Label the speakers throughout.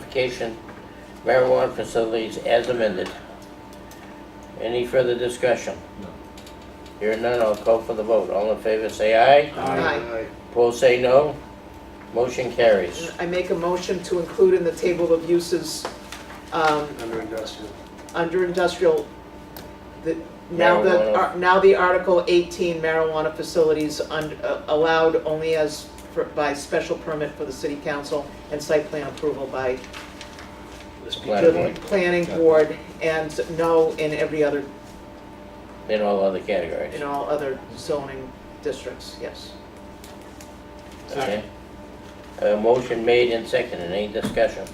Speaker 1: modification marijuana facilities as amended. Any further discussion?
Speaker 2: No.
Speaker 1: Hearing none, I'll call for the vote. All in favor, say aye.
Speaker 2: Aye.
Speaker 1: Opposed, say no. Motion carries.
Speaker 3: I make a motion to include in the table of uses, um,
Speaker 2: Under industrial.
Speaker 3: under industrial, the, now the,
Speaker 1: Marijuana.
Speaker 3: ar- now the Article 18 marijuana facilities un- uh, allowed only as, for- by special permit for the city council and site plan approval by
Speaker 1: Planning
Speaker 3: the
Speaker 1: board
Speaker 3: planning
Speaker 2: Yeah.
Speaker 3: board, and no in every other,
Speaker 1: in all other categories.
Speaker 3: in all other zoning districts, yes.
Speaker 1: Okay. A motion made and seconded. Any discussion?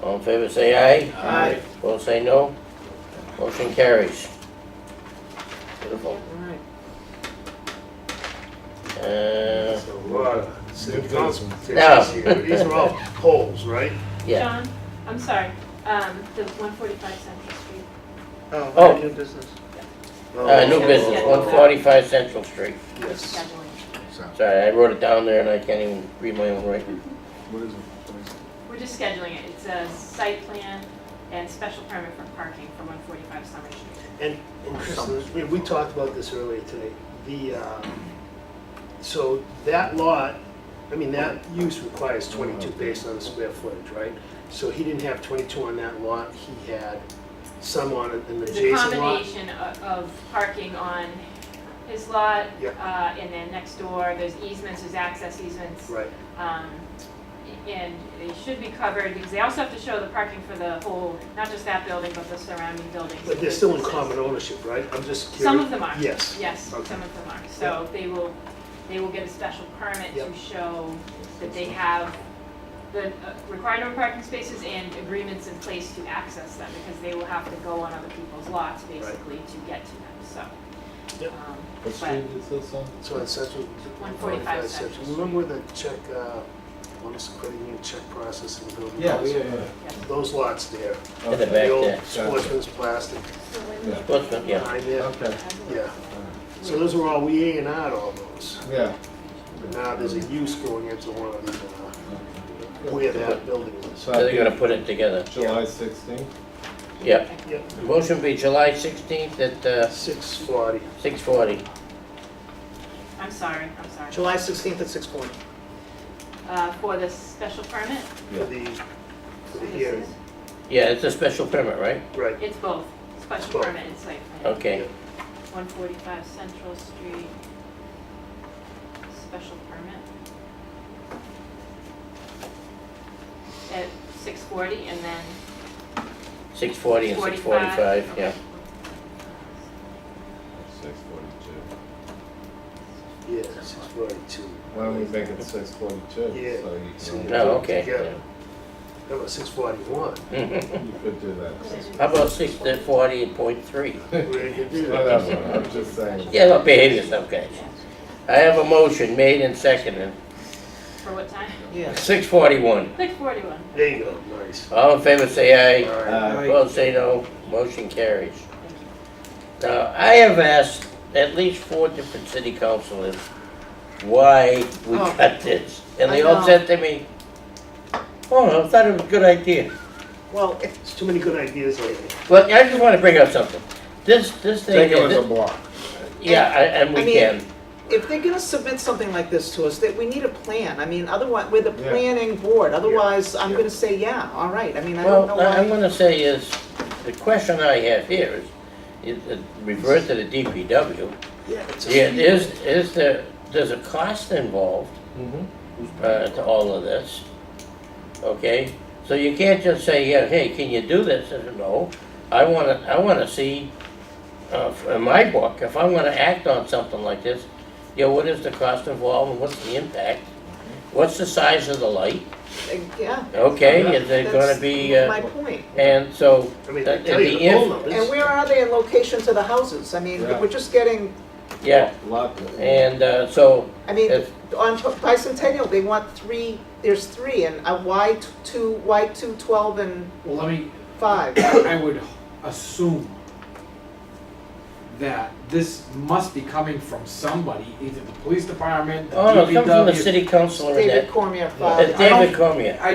Speaker 1: All in favor, say aye.
Speaker 3: Aye.
Speaker 1: Opposed, say no. Motion carries. Beautiful.
Speaker 3: All right.
Speaker 1: Uh,
Speaker 2: So, uh, city council
Speaker 1: No.
Speaker 2: takes here. These are all polls, right?
Speaker 1: yeah.
Speaker 4: John, I'm sorry, um, the one forty-five Central Street.
Speaker 3: Oh,
Speaker 1: Oh.
Speaker 3: new business.
Speaker 1: Uh, new business, one forty-five Central Street.
Speaker 2: Yes.
Speaker 4: scheduling.
Speaker 1: Sorry, I wrote it down there and I can't even read my own writing.
Speaker 2: What is it?
Speaker 4: We're just scheduling it, it's a site plan and special permit for parking for one forty-five Summer Street.
Speaker 2: And, and Chris, we, we talked about this earlier today. The, uh, so that lot, I mean, that use requires twenty-two based on the square footage, right? So he didn't have twenty-two on that lot, he had some on an
Speaker 4: It's a
Speaker 2: adjacent lot.
Speaker 4: combination of, of parking on his lot,
Speaker 2: Yeah.
Speaker 4: uh, and then next door, there's easements, there's access easements.
Speaker 2: Right,
Speaker 4: Um, and they should be covered, because they also have to show the parking for the whole, not just that building, but the surrounding buildings.
Speaker 2: but they're still in common ownership, right? I'm just curious.
Speaker 4: Some of them are.
Speaker 2: Yes.
Speaker 4: Yes, some
Speaker 2: Okay.
Speaker 4: of them are. So they will, they will get a special permit
Speaker 2: Yep.
Speaker 4: to show that they have the uh, required number of parking spaces and agreements in place to access them, because they will have to go on other people's lots, basically, to get to them, so.
Speaker 2: Yep.
Speaker 4: um,
Speaker 5: What street is this on?
Speaker 2: So on Central.
Speaker 4: 145
Speaker 2: Central.
Speaker 4: Central.
Speaker 2: Remember the check, uh, one is putting in check process and building.
Speaker 5: Oh,
Speaker 2: those- Those lots there,
Speaker 1: In the
Speaker 5: Okay.
Speaker 1: back
Speaker 2: the
Speaker 1: there.
Speaker 2: old sportsman's plastic
Speaker 5: Yeah.
Speaker 1: Sportsman, yeah.
Speaker 2: behind there.
Speaker 5: Okay,
Speaker 2: Yeah, so those were all, we A and R'd all those.
Speaker 5: yeah.
Speaker 2: But now there's a use going into one of the, uh, where that building is.
Speaker 1: So
Speaker 5: So
Speaker 1: they're
Speaker 5: that'd
Speaker 1: gonna put it together.
Speaker 5: be July sixteenth?
Speaker 1: Yep.
Speaker 2: Yep,
Speaker 1: Motion be July sixteenth at, uh,
Speaker 2: six forty.
Speaker 1: six forty.
Speaker 4: I'm sorry, I'm sorry.
Speaker 3: July 16th at 6:40.
Speaker 4: Uh, For the special permit?
Speaker 2: for the, for the hearing,
Speaker 1: Yeah, it's a special permit, right?
Speaker 2: right.
Speaker 4: It's both, special
Speaker 2: Both.
Speaker 4: permit and site plan.
Speaker 1: Okay.
Speaker 4: 145 Central Street, special permit. At 6:40 and then
Speaker 1: Six forty and six
Speaker 4: 45.
Speaker 1: forty-five, yeah.
Speaker 5: Six forty-two.
Speaker 2: Yeah, six forty-two.
Speaker 5: Why don't we make it six forty-two?
Speaker 2: Yeah.
Speaker 5: So you
Speaker 2: So-
Speaker 5: can,
Speaker 1: No, okay.
Speaker 2: Together. That was six forty-one.
Speaker 1: yeah.
Speaker 5: only- you could do that.
Speaker 1: How about six uh, forty point three?
Speaker 2: We're gonna do
Speaker 5: Not
Speaker 1: um,
Speaker 2: that.
Speaker 5: that one, I'm just saying.
Speaker 1: Yeah, don't behave yourself, guys. I have a motion made and seconded.
Speaker 4: For what time?
Speaker 3: Yes.
Speaker 1: Six forty-one.
Speaker 4: 6:41.
Speaker 2: There you go, nice.
Speaker 1: All in favor, say aye.
Speaker 2: All right.
Speaker 5: Uh,
Speaker 1: Opposed, say no. Motion carries. Now, I have asked at least four different city councilors why we
Speaker 3: Oh.
Speaker 1: cut this. And they
Speaker 3: I
Speaker 1: all
Speaker 3: know.
Speaker 1: said to me, oh, I thought it was a good idea.
Speaker 3: Well, if,
Speaker 2: There's too many good ideas lately.
Speaker 1: Well, I just want to bring up something. This, this thing,
Speaker 5: Take it as a
Speaker 1: is-
Speaker 5: block.
Speaker 1: yeah, I- and
Speaker 3: I
Speaker 1: we
Speaker 3: mean-
Speaker 1: can.
Speaker 3: if they're gonna submit something like this to us, that we need a plan, I mean, otherwise, we're the
Speaker 5: Yeah.
Speaker 3: planning board, otherwise, I'm
Speaker 2: Yeah.
Speaker 3: gonna say, yeah, all right, I mean, I don't
Speaker 1: Well,
Speaker 3: know
Speaker 1: what I'm
Speaker 3: why.
Speaker 1: gonna say is, the question I have here is, is, uh, revert to the DPW.
Speaker 2: Yeah. it's a-
Speaker 1: Yeah, is, is there, there's a cost involved uh, to all of this, okay? So you can't just say, yeah, hey, can you do this? I said, No, I wanna, I wanna see, uh, in my book, if I'm gonna act on something like this, you know, what is the cost involved and what's the impact? What's the size of the light,
Speaker 3: uh, Yeah.
Speaker 1: okay, is it gonna
Speaker 3: That's
Speaker 1: be, uh,
Speaker 3: My point,
Speaker 1: and so,
Speaker 2: I mean, they
Speaker 1: Uh,
Speaker 2: tell you
Speaker 1: the
Speaker 2: the poll
Speaker 1: inf-
Speaker 2: numbers.
Speaker 3: and where are they in location to the houses, I mean,
Speaker 5: Yeah.
Speaker 3: we're just getting,
Speaker 1: yeah,
Speaker 5: Lot.
Speaker 1: and, uh, so,
Speaker 3: I mean,
Speaker 1: It's-
Speaker 3: on P- bicentennial, they want three, there's three, and a Y t- two, Y two twelve and
Speaker 6: Well, let me,
Speaker 3: five.
Speaker 6: I would assume that this must be coming from somebody, either the police department, the
Speaker 1: oh, no, it comes from the
Speaker 6: DPW.
Speaker 1: city councilor and
Speaker 3: David
Speaker 1: that,
Speaker 3: Cormier,
Speaker 1: it's
Speaker 3: five.
Speaker 6: I don't-
Speaker 1: David Cormier.
Speaker 6: I